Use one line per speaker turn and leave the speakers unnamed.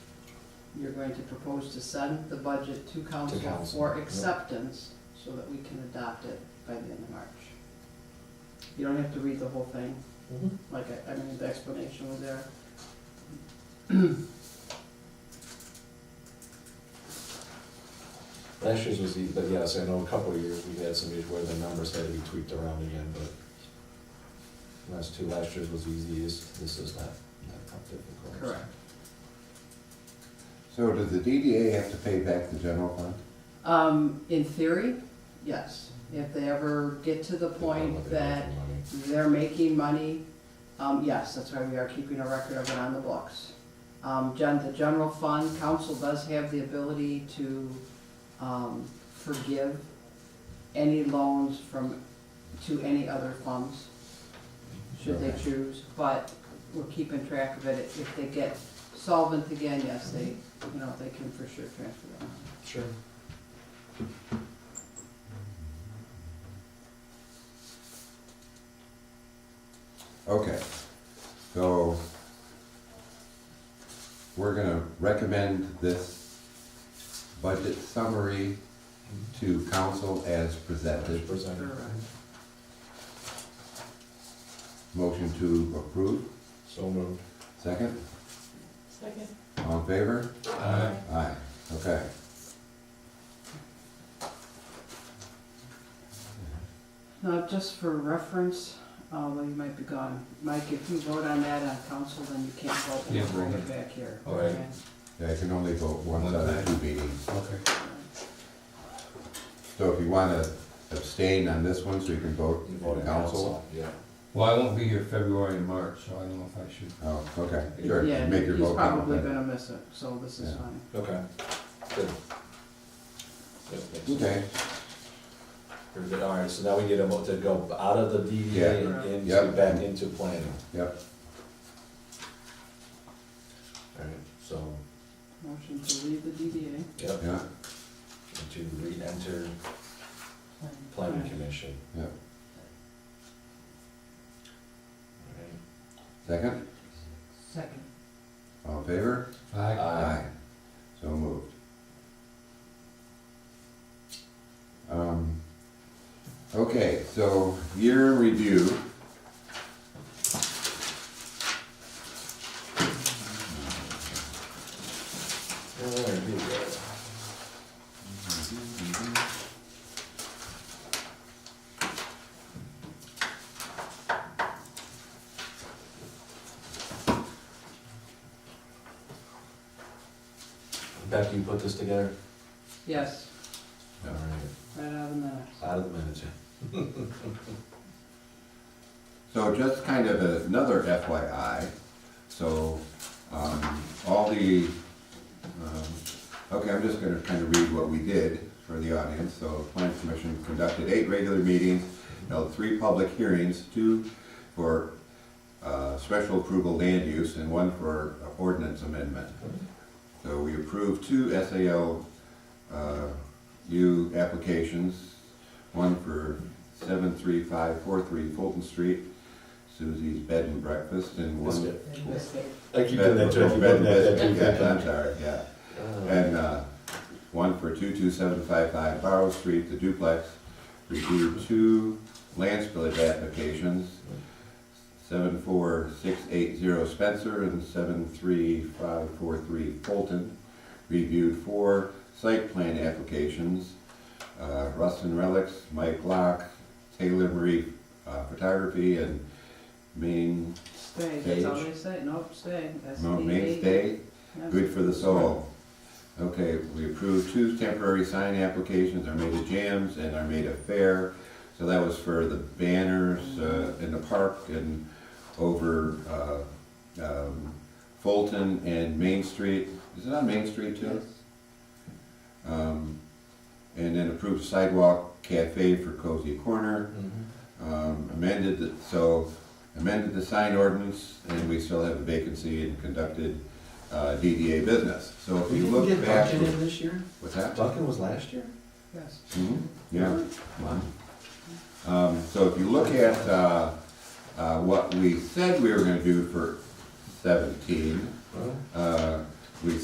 you're going to propose to send the budget to council
council,
for
yep.
acceptance so that we can adopt it by the end of March. You don't have to read the whole thing,
Mm-hmm.
like, I- I mean, the explanation was there.
Last year's was, easy, but yes, I know a couple of years we've had some years where the numbers had to be tweaked around again, but last two, last year's was easy, this, this is not, not difficult.
So does the DDA have to pay back the general fund?
Um, in theory, yes, if they ever get to the point that they're making money, um, yes, that's why we are keeping a record of it on the books. Um, gen, the general fund, council does have the ability to, um, forgive any loans from, to any other funds, should they
Okay.
choose, but we're keeping track of it. If they get solvent again, yes, they, you know, they can for sure transfer that money.
Sure.
Okay, so we're gonna recommend this budget summary to council as presented.
Presented,
Motion to approve,
so moved.
second,
Second.
all in favor?
Aye.
Aye, okay.
Now, just for reference, although you might be gone, Mike, if you vote on that on council, then you can't vote when you
Yeah,
bring
right.
it back here.
All right.
okay?
Yeah, I can only vote once out of two meetings.
Okay.
So if you wanna abstain on this one, so you can vote
You voted
council?
council, yeah.
Well, I won't be here February and March, so I don't know if I should.
Oh, okay, sure,
Yeah,
make your
he's
vote. count.
probably gonna miss it, so this is
Yeah.
fine.
Okay, good. Yep, makes sense.
Okay,
Very good, all right, so now we need a vote to go out of the DDA
Yeah.
and into,
Yep.
back into planning.
yep,
All right, so,
Motion to leave the DDA.
yep,
yeah,
and to re-enter planning commission.
yeah.
All right.
Second,
Second.
all in favor?
Uh,
I,
Aye.
So moved. Um, Okay, so year in review.
All right, here we go. Becky, you put this together?
Yes,
All right,
right out of the minutes.
out of the minutes, yeah.
So just kind of another FYI, so um, all the, um, okay, I'm just gonna kind of read what we did for the audience. So Planning Commission conducted eight regular meetings, held three public hearings, two for uh, special approval land use and one for ordinance amendment. So we approved two SAL uh, U applications, one for 73543 Fulton Street, Susie's Bed and Breakfast, and one.
Biscuit.
And Biscuit.
I keep doing that too, I keep
Bed
doing
and
that, I keep doing
Biscuit, yeah, I'm
that.
sorry, yeah.
Uh,
And uh, one for 22755 Barrow Street, the duplex, reviewed two land spillage applications, 74680 Spencer and 73543 Fulton. Reviewed four site plan applications, uh, Rustin Relics, Mike Locke, Taylor Marie uh, Photography, and Main,
Stay, that's all
Page.
they say, nope, stay, that's
no,
DDA.
Mainstay.
Yep.
Good for the soul. Okay, we approved two temporary sign applications, Armada Jams and Armada Fair. So that was for the banners uh, in the park and over uh, um, Fulton and Main Street. Is it on Main Street too?
Yes.
Um, And then approved sidewalk cafe for Cozy Corner
mhm.
um, amended, the- so amended the sign ordinance, and we still have a vacancy and conducted uh, DDA business. So if you look back,
this year?
what's that?
Duncan was last year?
Yes.
Mhm, Yeah. Um, So if you look at uh, uh, what we said we were gonna do for seventeen,
Well,
uh,